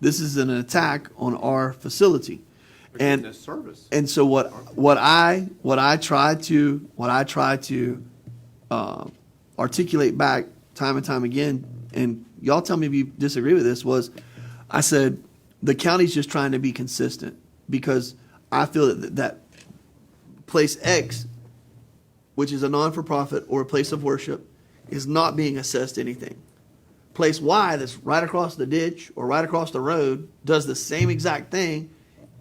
This is an attack on our facility. the And, service. and so what, what I, what I try to, what I try to uh, articulate back time and time again, and y'all tell me if you disagree with this, was I said, the county's just trying to be consistent because I feel that, that place X, which is a non for profit or a place of worship, is not being assessed anything. Place Y, that's right across the ditch or right across the road, does the same exact thing,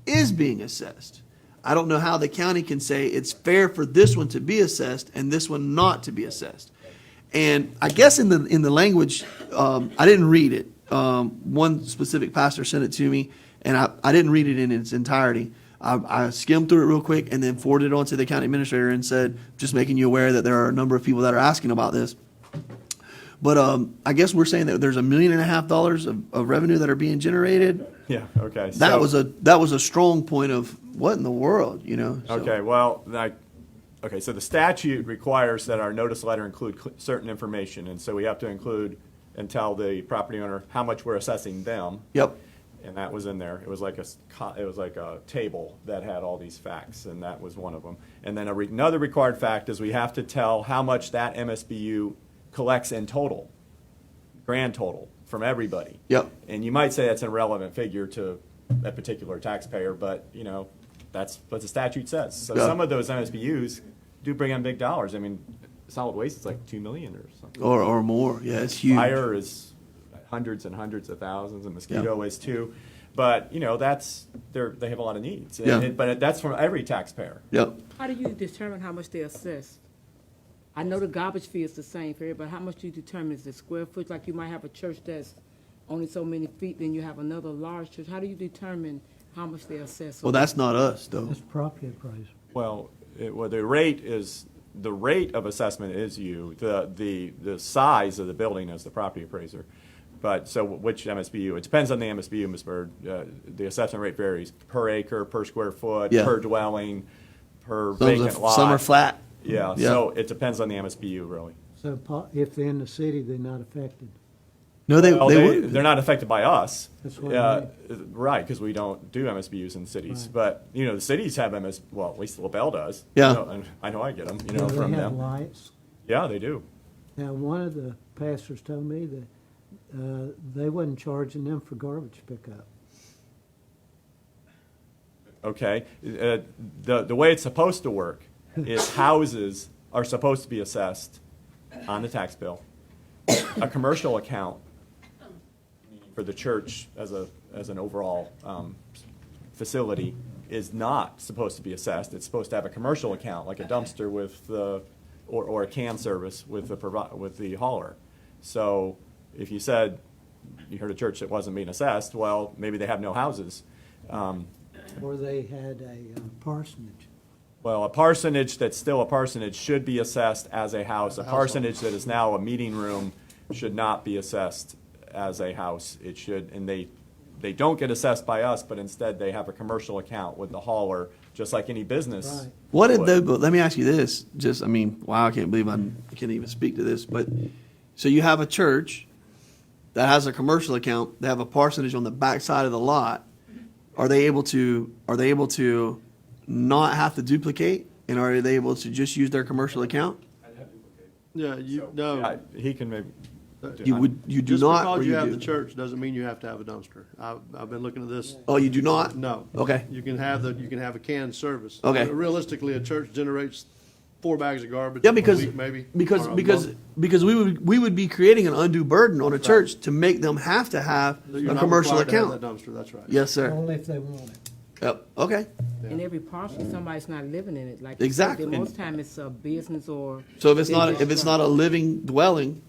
is being assessed. I don't know how the county can say it's fair for this one to be assessed and this one not to be assessed. And I guess in the in the language, um, I didn't read it. Um, one specific pastor sent it to me, and I, I didn't read it in its entirety. I, I skimmed through it real quick and then forwarded it on to the county administrator and said, just making you aware that there are a number of people that are asking about this. But um, I guess we're saying that there's a million and a half dollars of, of revenue that are being generated. Yeah, okay. That so- was a that was a strong point of what in the world, you know? so- Okay, well, like, okay, so the statute requires that our notice letter include cl- certain information, and so we have to include and tell the property owner how much we're assessing them. Yep. And that was in there. It was like a, s- co- it was like a table that had all these facts, and that was one of them. And then a re- another required fact is we have to tell how much that MSBU collects in total, grand total, from everybody. Yep. And you might say that's an irrelevant figure to a particular taxpayer, but, you know, that's what the statute says. So Yeah. some of those MSBU's do bring in big dollars. I mean, solid waste is like two million or something. Or or more. Yeah, it's huge. Fire is hundreds and hundreds of thousands, and mosquito is too. But, you know, that's, they're, they have a lot of needs. And- Yeah. and- But that's from every taxpayer. Yep. How do you determine how much they assess? I know the garbage fee is the same for everybody, how much do you determine, is it square foot, like you might have a church that's only so many feet, then you have another large church, how do you determine how much they assess? Well, that's not us though. That's property price. Well, it, well, the rate is, the rate of assessment is you, the, the, the size of the building is the property appraiser. But, so which MSBU, it depends on the MSBU, Ms. Byrd, uh, the assessment rate varies per acre, per square foot, Yeah. per dwelling, per Some are- vacant lot. some are flat. Yeah, Yeah. so it depends on the MSBU, really. So po- if they're in the city, they're not affected. No, they Well, they, they, wouldn't. they're not affected by us. That's what I Uh, Right, because we don't do MSBU's in cities. Right. But, you know, the cities have MS, well, at least LaBelle does. Yeah. You know, and I know I get them, you know, Now, from They have them. lights. Yeah, they do. Now, one of the pastors told me that uh, they wasn't charging them for garbage pickup. Okay, uh, the, the way it's supposed to work is houses are supposed to be assessed on the tax bill. A commercial account for the church as a, as an overall, um, facility is not supposed to be assessed. It's supposed to have a commercial account, like a dumpster with the, or, or a can service with the provi, with the hauler. So if you said, you heard a church that wasn't being assessed, well, maybe they have no houses. Um, Or they had a uh, parsonage. well, a parsonage that's still a parsonage should be assessed as a house. A parsonage that is now a meeting room should not be assessed as a house. It should, and they, they don't get assessed by us, but instead they have a commercial account with the hauler, just like any business. Right. What did would. the, but let me ask you this, just, I mean, wow, I can't believe I can't even speak to this, but, so you have a church that has a commercial account, they have a parsonage on the backside of the lot. Are they able to, are they able to not have to duplicate? And are they able to just use their commercial account? Yeah, you, I- no, He can maybe. You would, you do just not, or because you have do? the church doesn't mean you have to have a dumpster. I've, I've been looking at this, Oh, you do not? no. Okay. You can have the, you can have a canned service. Okay. Realistically, a church generates four bags of garbage. Yeah, a because week maybe. because or a because month. because we would we would be creating an undue burden on a church to make them have to have So you're a not commercial required to have account. that Dumpster, that's right. Yes, sir. Only if they want it. Yep. Okay. In every parcel, somebody's not living in it, like. you said, then Exactly. Most time it's a business or. So if it's not if it's not a living dwelling,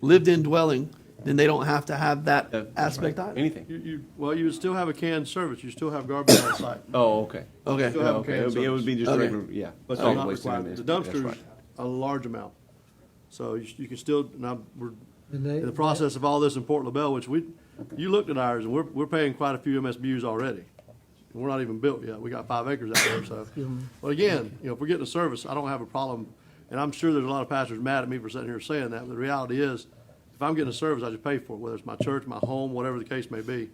lived-in dwelling, then they don't have to have that aspect either. Anything. You, you, well, you would still have a canned service. You still have garbage on site. Oh, okay. Okay. Go ahead. Okay, it would be, it would be just Okay. regular, yeah. But solid you're not waste and required. The management, that's dumpster's right. a large amount. So you, you can still, now, we're And they- in the process of all this in Port LaBelle, which we, you looked at ours, and we're, we're paying quite a few MSBU's already. And We're not even built yet. We got five acres out there, so. But again, you know, if we're getting a service, I don't have a problem. And I'm sure there's a lot of pastors mad at me for sitting here saying that, but the reality is, if I'm getting a service, I just pay for it, whether it's my church, my home, whatever the case may be.